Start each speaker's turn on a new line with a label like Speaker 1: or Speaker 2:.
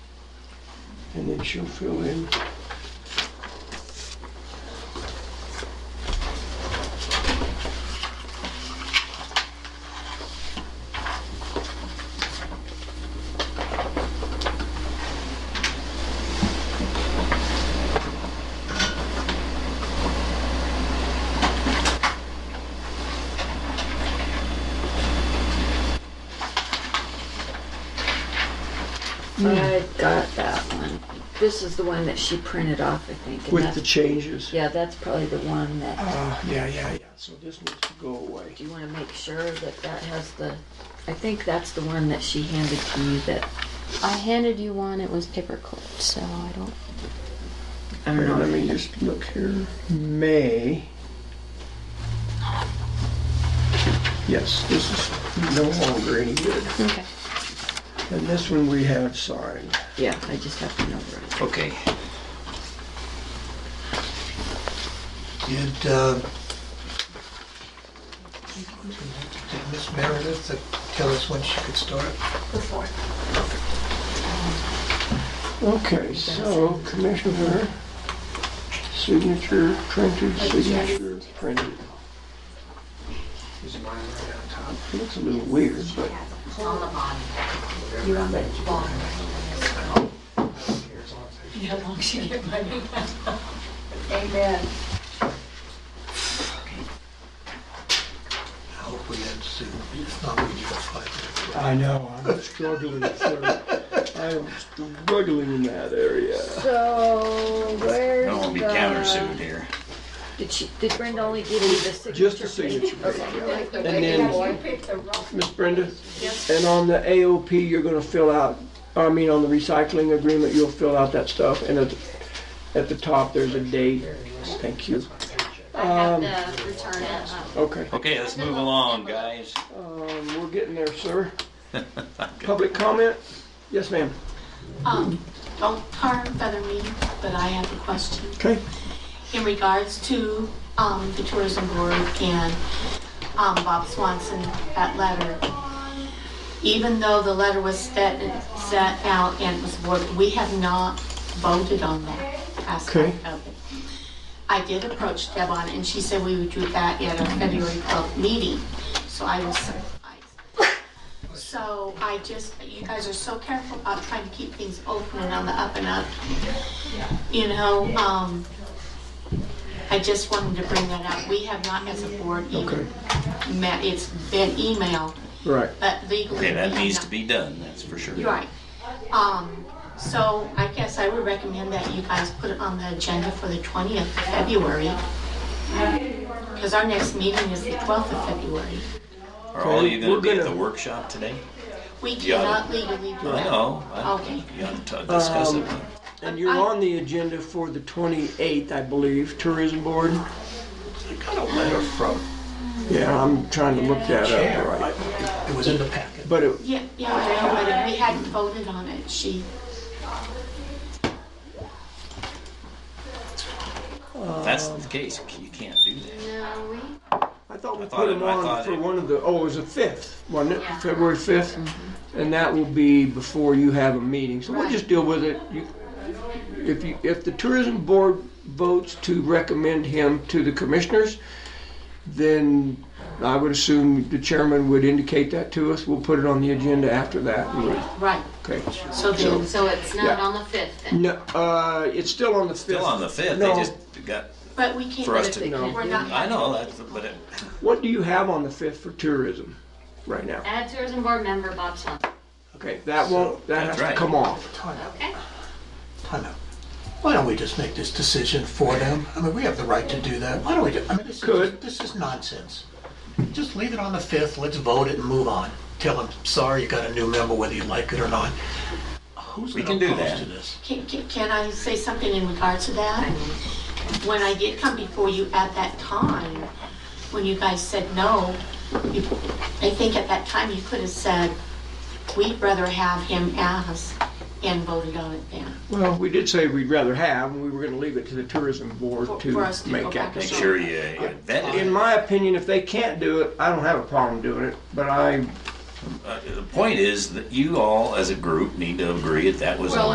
Speaker 1: and then she'll fill in. Mm.
Speaker 2: I got that one. This is the one that she printed off, I think. and
Speaker 1: With
Speaker 2: that's-
Speaker 1: the changes.
Speaker 2: Yeah, that's probably the one that,
Speaker 1: Uh, yeah, yeah, yeah, so this needs to go away.
Speaker 2: do you wanna make sure that that has the, I think that's the one that she handed to you that,
Speaker 3: I handed you one, it was paper clipped, so I don't.
Speaker 2: I don't
Speaker 1: Here,
Speaker 2: know.
Speaker 1: Let me just look here. May. Yes, this is no longer any good.
Speaker 3: Okay.
Speaker 1: And this one we have signed.
Speaker 2: Yeah, I just have to notarize.
Speaker 1: Okay.
Speaker 4: Did, uh, did Miss Meredith uh, tell us when she could start?
Speaker 1: Okay, so Commissioner, signature printed, signature printed.
Speaker 4: Is mine right on top?
Speaker 1: Looks a little weird, but
Speaker 4: Here, as long as I- I hope we didn't sue. If not, we get five minutes.
Speaker 1: I know, I'm struggling. sir. I'm struggling in that area.
Speaker 2: So,
Speaker 5: I don't wanna
Speaker 2: where's
Speaker 5: be countersued here.
Speaker 2: Did she, did Brenda only give you the signature?
Speaker 1: Just a signature page. yeah. And then, Miss Brenda, and on the AOP, you're gonna fill out, I mean, on the recycling agreement, you'll fill out that stuff. And at, at the top, there's a date. Thank you.
Speaker 6: I have to return it. um,
Speaker 1: Okay.
Speaker 5: Okay, let's move along, guys.
Speaker 1: Um, we're getting there, sir. Public comment? Yes, ma'am.
Speaker 7: Um, don't tar and feather me, but I have a question
Speaker 1: Okay.
Speaker 7: in regards to, um, the tourism board and, um, Bob Swanson, that letter. Even though the letter was set, set out and it was voted, we have not voted on that aspect of it. I did approach Deb on it and she said we would do that at our February twelfth meeting, so I was surprised. So I just, you guys are so careful about trying to keep things open and on the up and up. You know, um, I just wanted to bring that up. We have not as a board
Speaker 1: Okay.
Speaker 7: even met, it's been email,
Speaker 1: Right.
Speaker 7: but legally.
Speaker 5: Okay, that
Speaker 7: we have
Speaker 5: needs to
Speaker 7: not-
Speaker 5: be done, that's for sure.
Speaker 7: You're Right. Um, so I guess I would recommend that you guys put it on the agenda for the twentieth of February. Because our next meeting is the twelfth of February.
Speaker 5: Are all you
Speaker 1: We're
Speaker 5: gonna be at
Speaker 1: gonna-
Speaker 5: the workshop today?
Speaker 7: We
Speaker 5: Yeah.
Speaker 7: cannot legally do
Speaker 5: I
Speaker 7: that.
Speaker 5: know. I-
Speaker 7: Okay.
Speaker 5: You ought to discuss it.
Speaker 1: And you're on the agenda for the 28th, I believe, Tourism Board?
Speaker 4: I got a letter from
Speaker 1: Yeah, I'm trying to look that up,
Speaker 4: Chair.
Speaker 1: right?
Speaker 4: I- It was in the packet.
Speaker 1: But it,
Speaker 7: Yeah, yeah, I know, but if we hadn't voted on it, she,
Speaker 5: If that's
Speaker 1: Um,
Speaker 5: the case, you can't do that.
Speaker 6: No, we,
Speaker 1: I thought we
Speaker 5: I thought
Speaker 1: put
Speaker 5: it-
Speaker 1: them
Speaker 5: I thought
Speaker 1: on for
Speaker 5: it-
Speaker 1: one of the, oh, it was the 5th, wasn't it?
Speaker 6: Yeah.
Speaker 1: February 5th? And that will be before you have a meeting, so we'll
Speaker 7: Mm-hmm. Right.
Speaker 1: just deal with it. You- If you, if the Tourism Board votes to recommend him to the commissioners, then I would assume the chairman would indicate that to us. We'll put it on the agenda after that. and we'll-
Speaker 7: right,
Speaker 1: Okay.
Speaker 7: so then,
Speaker 6: so it's not
Speaker 1: Yeah.
Speaker 6: on the fifth then?
Speaker 1: No, uh, it's still on the 5th.
Speaker 5: Still on the fifth, they
Speaker 1: No.
Speaker 5: just got,
Speaker 7: but we can't.
Speaker 5: For us to-
Speaker 1: No.
Speaker 7: We're not.
Speaker 5: I know, that's, but it,
Speaker 1: What do you have on the 5th for tourism right now?
Speaker 6: Add tourism board member Bob Swanson.
Speaker 1: Okay, that won't, that has
Speaker 5: That's
Speaker 1: to
Speaker 5: right.
Speaker 1: come off.
Speaker 4: Time out,
Speaker 6: Okay.
Speaker 4: time out. Why don't we just make this decision for them? I mean, we have the right to do that. Why don't we do, I mean, this is,
Speaker 1: Could.
Speaker 4: this is nonsense. Just leave it on the 5th, let's vote it and move on. Tell them, sorry, you got a new member, whether you like it or not. Who's
Speaker 5: We
Speaker 4: gonna
Speaker 5: can do
Speaker 4: oppose
Speaker 5: that.
Speaker 4: to this?
Speaker 7: Can, can, can I say something in regards to that? When I did come before you at that time, when you guys said no, you, I think at that time you could have said, we'd rather have him as, and voted on it then.
Speaker 1: Well, we did say we'd rather have, and we were gonna leave it to the tourism board
Speaker 7: For-
Speaker 1: to
Speaker 7: for us to go
Speaker 1: make
Speaker 7: back
Speaker 1: that.
Speaker 7: and
Speaker 5: make
Speaker 1: decision.
Speaker 5: sure you you vet
Speaker 1: In
Speaker 5: it.
Speaker 1: my opinion, if they can't do it, I don't have a problem doing it, but I
Speaker 5: Uh, The point is that you all, as a group, need to agree that that was
Speaker 6: Well,
Speaker 5: on